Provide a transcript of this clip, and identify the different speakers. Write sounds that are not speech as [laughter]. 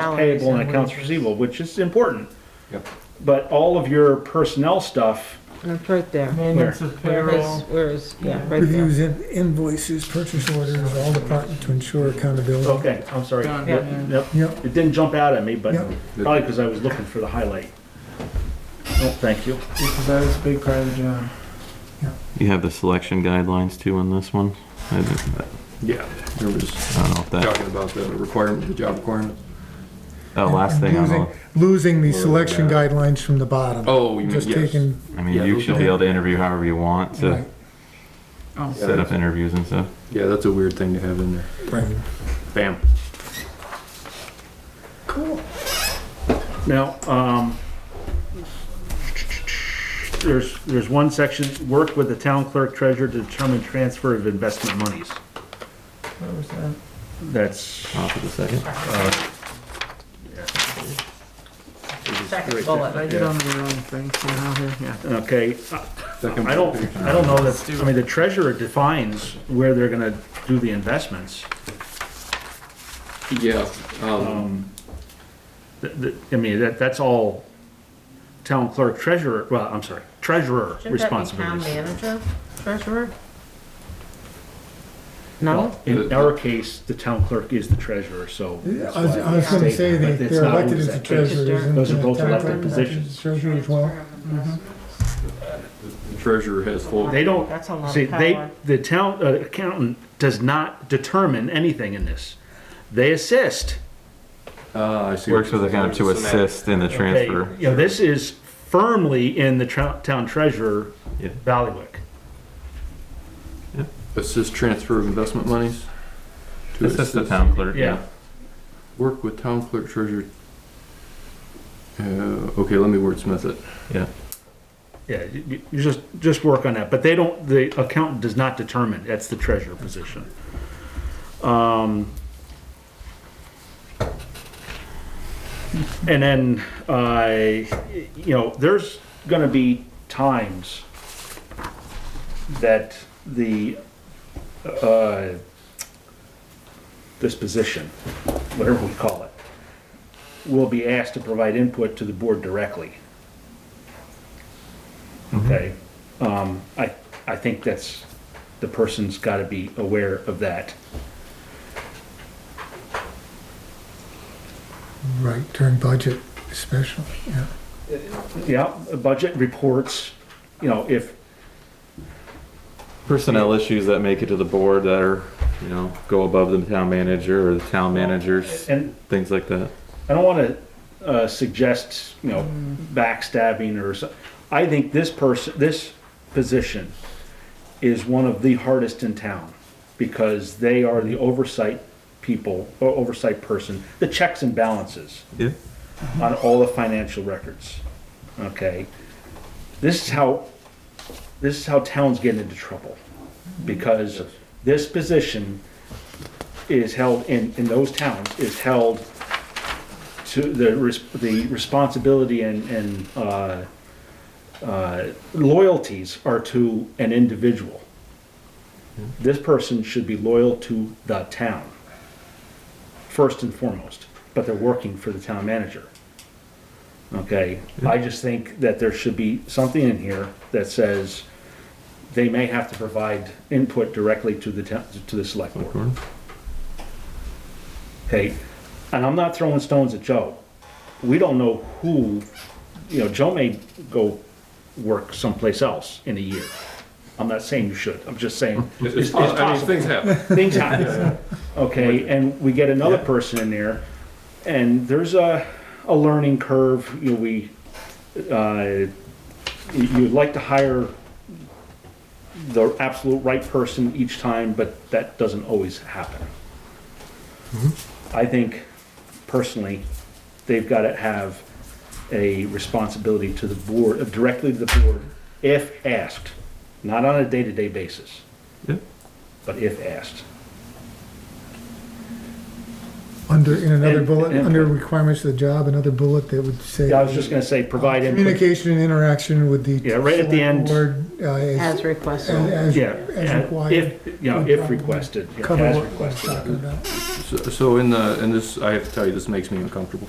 Speaker 1: salaries
Speaker 2: payable and accounts
Speaker 1: wages.
Speaker 2: receivable, which is important.
Speaker 3: Yep.
Speaker 2: But all of your personnel stuff,
Speaker 4: That's right there.
Speaker 1: Maintenance of
Speaker 4: Where is,
Speaker 1: payroll.
Speaker 4: where is, yeah, right there.
Speaker 5: Reviews in- invoices, purchase orders, all department to ensure accountability.
Speaker 2: okay, I'm sorry.
Speaker 1: Done.
Speaker 2: Yep,
Speaker 1: Yeah.
Speaker 2: Yep,
Speaker 5: Yep,
Speaker 2: it didn't jump out at me, but
Speaker 5: Yep.
Speaker 2: probably because I was looking for the highlight. Oh, thank you.
Speaker 1: Because that is a big part of the job.
Speaker 6: You have the selection guidelines too on this one? I don't
Speaker 3: Yeah, we were just
Speaker 6: I don't know if that,
Speaker 3: talking about the requirement, the job requirement.
Speaker 6: oh, last thing on
Speaker 5: losing,
Speaker 6: the,
Speaker 5: losing the selection guidelines from the bottom.
Speaker 3: Oh, you mean,
Speaker 5: Just
Speaker 3: yes.
Speaker 5: taking,
Speaker 6: I mean,
Speaker 3: Yeah,
Speaker 6: you
Speaker 3: those
Speaker 6: should be able to interview however you want to
Speaker 5: right,
Speaker 1: Oh,
Speaker 3: Yeah.
Speaker 6: set up interviews and stuff.
Speaker 3: Yeah, that's a weird thing to have in there.
Speaker 5: right.
Speaker 3: Bam.
Speaker 2: Cool. Now, um, there's, there's one section, work with the town clerk treasurer to determine transfer of investment monies.
Speaker 1: what was that?
Speaker 2: That's,
Speaker 6: Off of the second.
Speaker 1: Second bullet. I get on the wrong thing somehow here, yeah.
Speaker 2: okay,
Speaker 3: Second
Speaker 2: I don't,
Speaker 3: page.
Speaker 2: I don't know that, I mean, the treasurer defines where they're gonna do the investments.
Speaker 3: Yeah, um,
Speaker 2: Um, th- th- I mean, that, that's all town clerk treasurer, well, I'm sorry, treasurer
Speaker 4: Shouldn't that be town
Speaker 2: responsibilities.
Speaker 4: manager, treasurer?
Speaker 2: Well,
Speaker 4: No?
Speaker 2: In our case, the town clerk is the treasurer, so. that's
Speaker 5: I was,
Speaker 2: why
Speaker 5: I was gonna
Speaker 2: state
Speaker 5: say
Speaker 2: that,
Speaker 5: that
Speaker 2: but it's
Speaker 5: they're
Speaker 2: not
Speaker 5: elected
Speaker 2: always
Speaker 5: as the
Speaker 2: that case.
Speaker 5: treasurer. isn't
Speaker 2: Those are
Speaker 5: the
Speaker 2: both
Speaker 5: town
Speaker 2: elected
Speaker 5: clerk
Speaker 2: positions.
Speaker 5: as Treasurer as well.
Speaker 3: the treasurer has full,
Speaker 2: They don't,
Speaker 4: That's a lot of
Speaker 2: see, they,
Speaker 4: power.
Speaker 2: the town uh, accountant does not determine anything in this. They assist.
Speaker 3: uh, I see.
Speaker 6: Works with the kind of
Speaker 3: So
Speaker 6: to
Speaker 3: now-
Speaker 6: assist in the
Speaker 2: They-
Speaker 6: transfer.
Speaker 2: You know, this is firmly in the tra- town treasurer,
Speaker 6: Yeah.
Speaker 2: Ballywick.
Speaker 3: Assist transfer of investment monies? To
Speaker 6: Assist the town clerk, yeah.
Speaker 3: Work with town clerk treasurer. Uh, okay, let me wordsmith it.
Speaker 2: Yeah, you- you you just, just work on that, but they don't, the accountant does not determine, that's the treasurer position. Um, And then, I, you know, there's gonna be times that the, uh, this position, whatever we call it, will be asked to provide input to the board directly okay? Um, I, I think that's, the person's gotta be aware of that.
Speaker 5: Right, during budget especially, yeah.
Speaker 2: Yeah, Uh, budget reports, you know, if,
Speaker 6: Personnel issues that make it to the board that are, you know, go above the town manager or the town managers,
Speaker 2: and
Speaker 6: things like that.
Speaker 2: I don't wanna, uh, suggest, you know, backstabbing or so, I think this person, this position is one of the hardest in town, because they are the oversight people, or oversight person, the checks and balances.
Speaker 6: Yeah.
Speaker 2: on all the financial records. Okay? This is how, this is how towns get into trouble. Because this position is held in, in those towns, is held to the, res- the responsibility and, and, uh, uh, loyalties are to an individual. This person should be loyal to the town, first and foremost, but they're working for the town manager. Okay, I just think that there should be something in here that says they may have to provide input directly to the town, to the select board. Okay, and I'm not throwing stones at Joe. We don't know who, you know, Joe may go work someplace else in a year. I'm not saying you should, I'm just saying.
Speaker 3: It's, possible. I mean, things happen.
Speaker 2: Things
Speaker 3: [laughs]
Speaker 2: happen. Okay, and we get another person in there, and there's a, a learning curve, you know, we, uh, you'd like to hire the absolute right person each time, but that doesn't always happen. I think personally, they've got to have a responsibility to the board, uh, directly to the board, if asked, not on a day-to-day basis
Speaker 6: Yeah.
Speaker 2: but if asked.
Speaker 5: Under, in another
Speaker 2: And-
Speaker 5: bullet,
Speaker 2: and-
Speaker 5: under requirements of the job, another bullet that would say.
Speaker 2: Yeah, I was just gonna say, provide input.
Speaker 5: Communication and interaction with the.
Speaker 2: Yeah, right at the end.
Speaker 5: Board, uh, as,
Speaker 4: as requested.
Speaker 5: as,
Speaker 2: Yeah,
Speaker 5: as
Speaker 2: and
Speaker 5: required.
Speaker 2: if, you know, if requested, yeah,
Speaker 5: Cover
Speaker 2: as
Speaker 5: what we're talking
Speaker 2: requested.
Speaker 5: about.
Speaker 3: So, so in the, and this, I have to tell you, this makes me uncomfortable.